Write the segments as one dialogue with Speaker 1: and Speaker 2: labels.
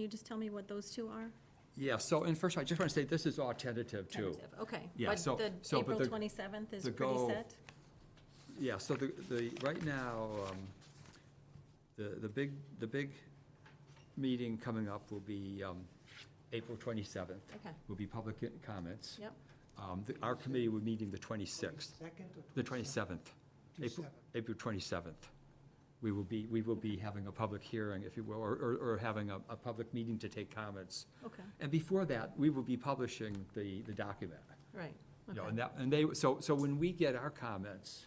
Speaker 1: you just tell me what those two are?
Speaker 2: Yeah, so, and first, I just want to say, this is all tentative, too.
Speaker 1: Tentative, Okay.
Speaker 2: Yeah, so-
Speaker 1: But the
Speaker 2: so, but
Speaker 1: April
Speaker 2: the-
Speaker 1: 27th is
Speaker 2: the
Speaker 1: pretty
Speaker 2: goal-
Speaker 1: set?
Speaker 2: Yeah, so the, the, right now, um, the, the big, the big meeting coming up will be um, April 27th,
Speaker 1: Okay,
Speaker 2: will be public comments.
Speaker 1: yep.
Speaker 2: Um, the- Our committee will meeting the 26th,
Speaker 3: Second or?
Speaker 2: the 27th, April,
Speaker 3: 27th.
Speaker 2: April 27th. We will be, we will be having a public hearing, if you will, or, or- or having a, a public meeting to take comments.
Speaker 1: Okay,
Speaker 2: And before that, we will be publishing the, the document.
Speaker 1: right.
Speaker 2: You know,
Speaker 1: okay.
Speaker 2: and that, and they, so, so when we get our comments,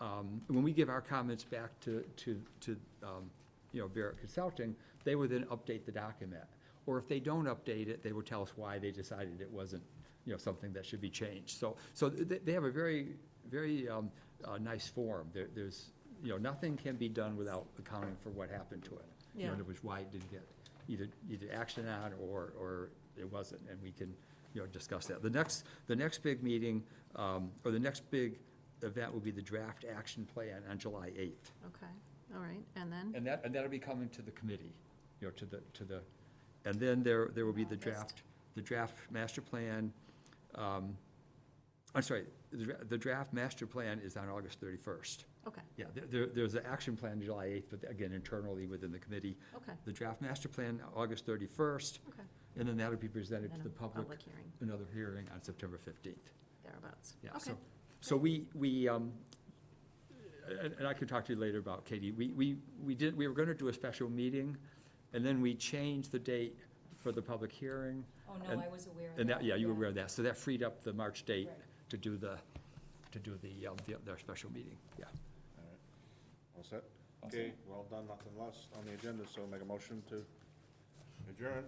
Speaker 2: um, when we give our comments back to, to, to, um, you know, Barrett Consulting, they will then update the document. Or if they don't update it, they will tell us why they decided it wasn't, you know, something that should be changed. So, so they, they have a very, very, um, uh, nice form. There, there's, you know, nothing can be done without accounting for what happened to it. You
Speaker 1: Yeah.
Speaker 2: know, In other words, why it didn't get either, either action on or, or it wasn't, and we can, you know, discuss that. The next, the next big meeting, um, or the next big event will be the draft action plan on July eighth.
Speaker 1: Okay, all right, and then?
Speaker 2: And that, and that'll be coming to the committee, you know, to the, to the, and then there, there will be the
Speaker 1: August.
Speaker 2: draft, the draft master plan. um, I'm sorry, the, dra- the draft master plan is on August thirty-first.
Speaker 1: Okay,
Speaker 2: Yeah, there- there, there's an action plan July eighth, but again, internally within the committee.
Speaker 1: okay,
Speaker 2: The draft master plan, August thirty-first,
Speaker 1: okay.
Speaker 2: and then that'll be presented
Speaker 1: Then
Speaker 2: to
Speaker 1: a
Speaker 2: the public,
Speaker 1: Public hearing,
Speaker 2: another hearing on September fifteenth.
Speaker 1: thereabouts.
Speaker 2: Yeah,
Speaker 1: Okay,
Speaker 2: so, so we, we, um, and, and I can talk to you later about Katie, we, we, we did, we were gonna do a special meeting, and then we changed the date for the public hearing,
Speaker 4: Oh,
Speaker 2: And-
Speaker 4: no, I was aware of that.
Speaker 2: and that, yeah, you were aware of that, so that freed up the March date
Speaker 4: Right.
Speaker 2: to do the, to do the, um, the, their special meeting, yeah.
Speaker 5: All right. All set? Okay, well done, nothing less on the agenda, so make a motion to adjourn.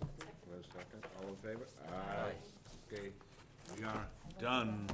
Speaker 5: Wait a second, all in favor? Aye. Okay, we are done.